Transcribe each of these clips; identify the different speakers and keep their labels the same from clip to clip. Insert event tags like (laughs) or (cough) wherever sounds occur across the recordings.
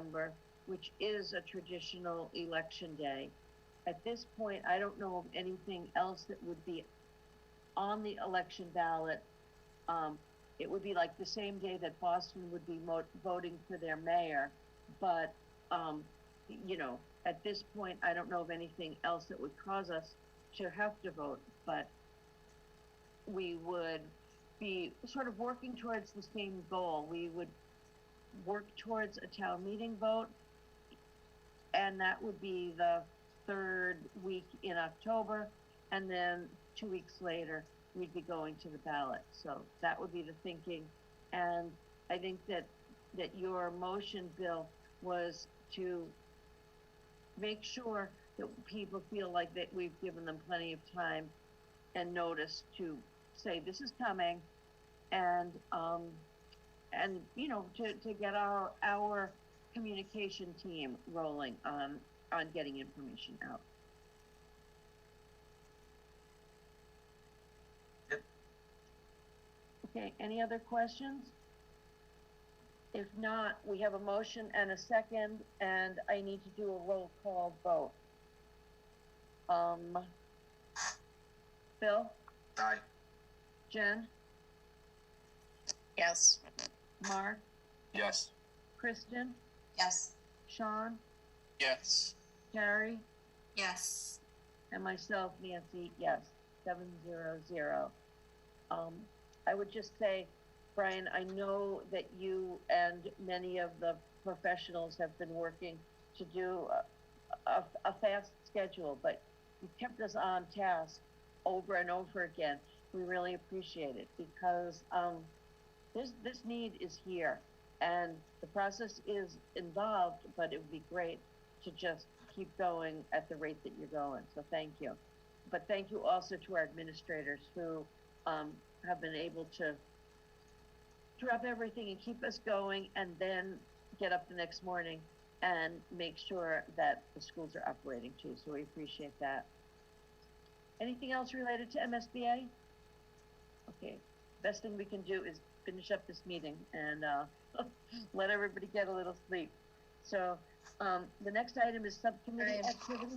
Speaker 1: November, which is a traditional election day. At this point, I don't know of anything else that would be on the election ballot. Um, it would be like the same day that Boston would be mo- voting for their mayor, but, um, you know, at this point, I don't know of anything else that would cause us to have to vote, but we would be sort of working towards the same goal. We would work towards a town meeting vote, and that would be the third week in October, and then two weeks later, we'd be going to the ballot. So that would be the thinking, and I think that, that your motion, Bill, was to make sure that people feel like that we've given them plenty of time and notice to say this is coming and um and you know to to get our our communication team rolling on on getting information out
Speaker 2: Yep.
Speaker 1: okay any other questions if not we have a motion and a second and i need to do a roll call vote um bill
Speaker 2: Aye.
Speaker 1: Jen? Yes. Mark,
Speaker 2: Yes.
Speaker 1: Kristen,
Speaker 3: Yes.
Speaker 1: Sean,
Speaker 2: Yes.
Speaker 1: Carrie,
Speaker 3: Yes.
Speaker 1: and myself, Nancy, yes, seven zero zero. Um, I would just say, Brian, I know that you and many of the professionals have been working to do a, a, a fast schedule, but you kept us on task over and over again. We really appreciate it because, um, this, this need is here and the process is involved, but it would be great to just keep going at the rate that you're going. So thank you. But thank you also to our administrators who um, have been able to drop everything and keep us going and then get up the next morning and make sure that the schools are operating too. So we appreciate that. Anything else related to MSBA? Okay, best thing we can do is finish up this meeting and uh, (laughs) let everybody get a little sleep. So um, the next item is subcommittee
Speaker 3: Brian.
Speaker 1: activity.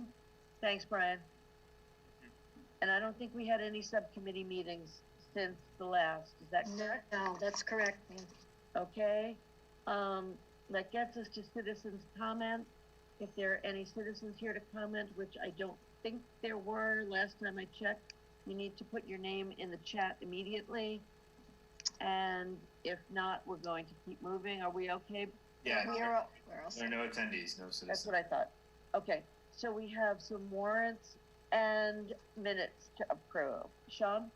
Speaker 1: Thanks, Brian. And I don't think we had any subcommittee meetings since the last, is that
Speaker 3: No,
Speaker 1: correct?
Speaker 3: no, that's correct.
Speaker 1: Okay, um, that gets us to citizens' comment. If there are any citizens here to comment, which I don't think there were last time I checked, you need to put your name in the chat immediately. And if not, we're going to keep moving. Are we okay?
Speaker 2: Yeah.
Speaker 3: We are, where else?
Speaker 2: There are no attendees, no
Speaker 1: That's
Speaker 2: citizens.
Speaker 1: what I thought. Okay, so we have some warrants and minutes to approve. Sean?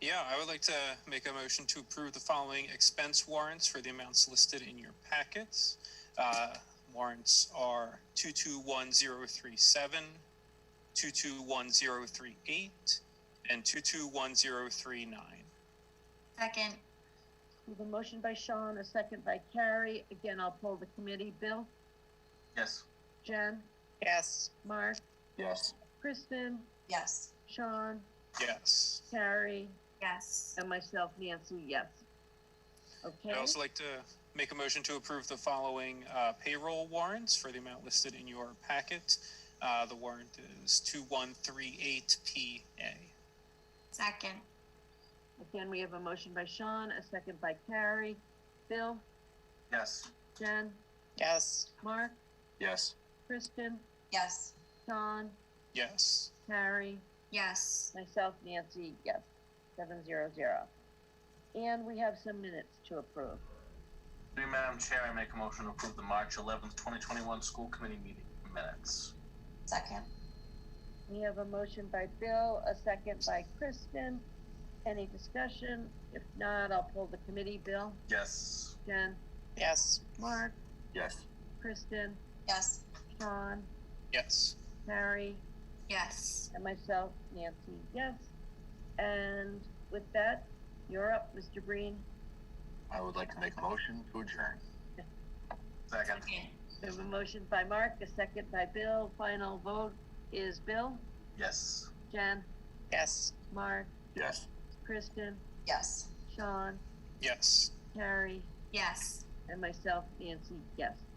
Speaker 4: Yeah, I would like to make a motion to approve the following expense warrants for the amounts listed in your packets. Uh, warrants are two two one zero three seven, two two one zero three eight, and two two one zero three nine.
Speaker 3: Second.
Speaker 1: We have a motion by Sean, a second by Carrie. Again, I'll pull the committee. Bill?
Speaker 2: Yes.
Speaker 1: Jen?
Speaker 3: Yes.
Speaker 1: Mark?
Speaker 2: Yes.
Speaker 1: Kristen,
Speaker 3: Yes.
Speaker 1: Sean,
Speaker 4: Yes.
Speaker 1: Carrie,
Speaker 3: Yes.
Speaker 1: and myself, Nancy, yes. Okay,
Speaker 4: I'd also like to make a motion to approve the following uh, payroll warrants for the amount listed in your packet. Uh, the warrant is two one three eight P A.
Speaker 3: Second.
Speaker 1: again, we have a motion by Sean, a second by Carrie, Bill,
Speaker 2: Yes.
Speaker 1: Jen,
Speaker 3: Yes.
Speaker 1: Mark,
Speaker 2: Yes.
Speaker 1: Kristen,
Speaker 3: Yes.
Speaker 1: Sean,
Speaker 4: Yes.
Speaker 1: Carrie,
Speaker 3: Yes.
Speaker 1: myself, Nancy, yes, seven zero zero. And we have some minutes to approve.
Speaker 2: Through you, Madam Chair, I make a motion to approve the March eleventh, twenty twenty-one school committee meeting minutes.
Speaker 3: Second.
Speaker 1: We have a motion by Bill, a second by Kristen. Any discussion? If not, I'll pull the committee. Bill,
Speaker 2: Yes.
Speaker 1: Jen,
Speaker 3: Yes.
Speaker 1: Mark,
Speaker 2: Yes.
Speaker 1: Kristen,
Speaker 3: Yes.
Speaker 1: Sean,
Speaker 4: Yes.
Speaker 1: Mary,
Speaker 3: Yes.
Speaker 1: and myself, Nancy, yes. And with that, you're up, Mr. Breen.
Speaker 5: I would like to make a motion to adjourn.
Speaker 2: Second.
Speaker 1: We have a motion by Mark, a second by Bill. Final vote is Bill,
Speaker 2: Yes.
Speaker 1: Jen,
Speaker 3: Yes.
Speaker 1: Mark,
Speaker 5: Yes.
Speaker 1: Kristen,
Speaker 3: Yes.
Speaker 1: Sean,
Speaker 4: Yes.
Speaker 1: Carrie,
Speaker 3: Yes.
Speaker 1: and myself, Nancy, yes.